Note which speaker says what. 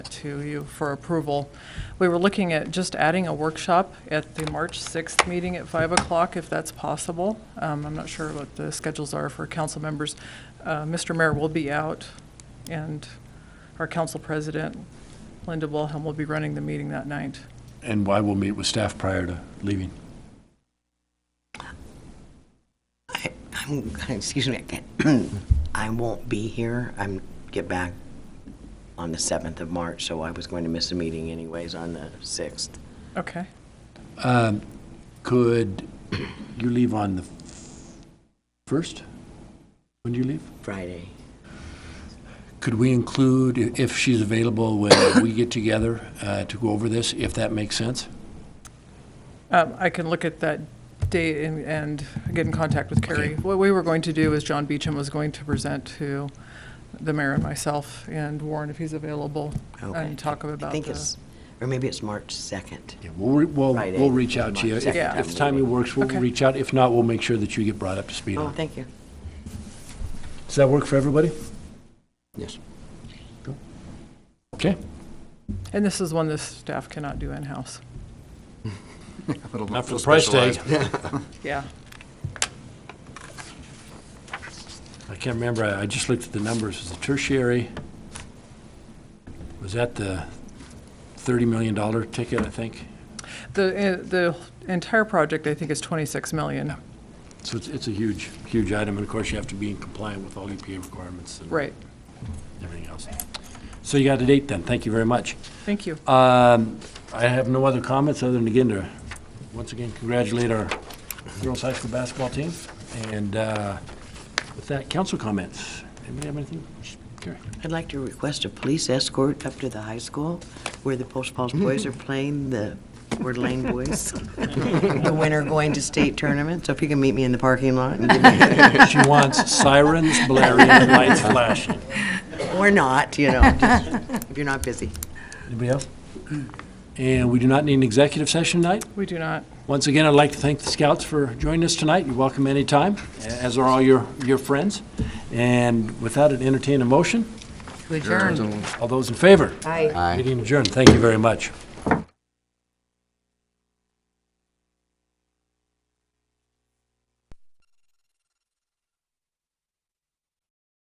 Speaker 1: to you for approval. We were looking at just adding a workshop at the March 6th meeting at 5 o'clock, if that's possible. Um, I'm not sure what the schedules are for council members. Uh, Mr. Mayor will be out, and our council president, Linda Wilhelm, will be running the meeting that night.
Speaker 2: And why we'll meet with staff prior to leaving.
Speaker 3: I- I'm, excuse me, I can't- I won't be here. I'm, get back on the 7th of March, so I was going to miss a meeting anyways on the 6th.
Speaker 1: Okay.
Speaker 2: Could you leave on the f- first? When do you leave?
Speaker 3: Friday.
Speaker 2: Could we include, i- if she's available, when we get together uh, to go over this, if that makes sense?
Speaker 1: Um, I can look at that date and, and get in contact with Carrie. What we were going to do is John Beecham was going to present to the mayor and myself and Warren if he's available
Speaker 3: Okay.
Speaker 1: and talk about the.
Speaker 3: I think it's, or maybe it's March 2nd.
Speaker 2: Yeah, We'll, re- we'll,
Speaker 3: Friday,
Speaker 2: we'll reach out to you. If
Speaker 3: March
Speaker 1: Yeah.
Speaker 2: if timing works, we'll
Speaker 1: Okay.
Speaker 2: reach out. If not, we'll make sure that you get brought up to speed
Speaker 3: Oh,
Speaker 2: on it.
Speaker 3: thank you.
Speaker 2: Does that work for everybody?
Speaker 3: Yes.
Speaker 2: Okay.
Speaker 1: And this is one the staff cannot do in-house.
Speaker 2: Not for the price tag.
Speaker 1: Yeah.
Speaker 2: I can't remember, I I just looked at the numbers, was the tertiary, was that the $30 million ticket, I think?
Speaker 1: The, uh, the entire project, I think, is 26 million.
Speaker 2: So it's, it's a huge, huge item, and of course, you have to be in compliant with all EPA requirements and
Speaker 1: Right.
Speaker 2: everything else. So you got a date then, thank you very much.
Speaker 1: Thank you.
Speaker 2: Um, I have no other comments, other than again to, once again, congratulate our girls high school basketball team, and uh, with that, council comments. Anybody have anything? Carrie?
Speaker 3: I'd like to request a police escort up to the high school where the Post Falls boys are playing the Word Lane boys. The winner going to state tournament, so if you can meet me in the parking lot and give me-
Speaker 2: She wants sirens blaring and lights flashing.
Speaker 3: or not, you know, just if you're not busy.
Speaker 2: Anybody else? And we do not need an executive session tonight.
Speaker 1: We do not.
Speaker 2: Once again, I'd like to thank the scouts for joining us tonight. You're welcome anytime, as are all your, your friends. And without an entertain a motion,
Speaker 4: adjourn.
Speaker 2: all those in favor?
Speaker 4: Aye.
Speaker 2: Meeting adjourned. Thank you very much.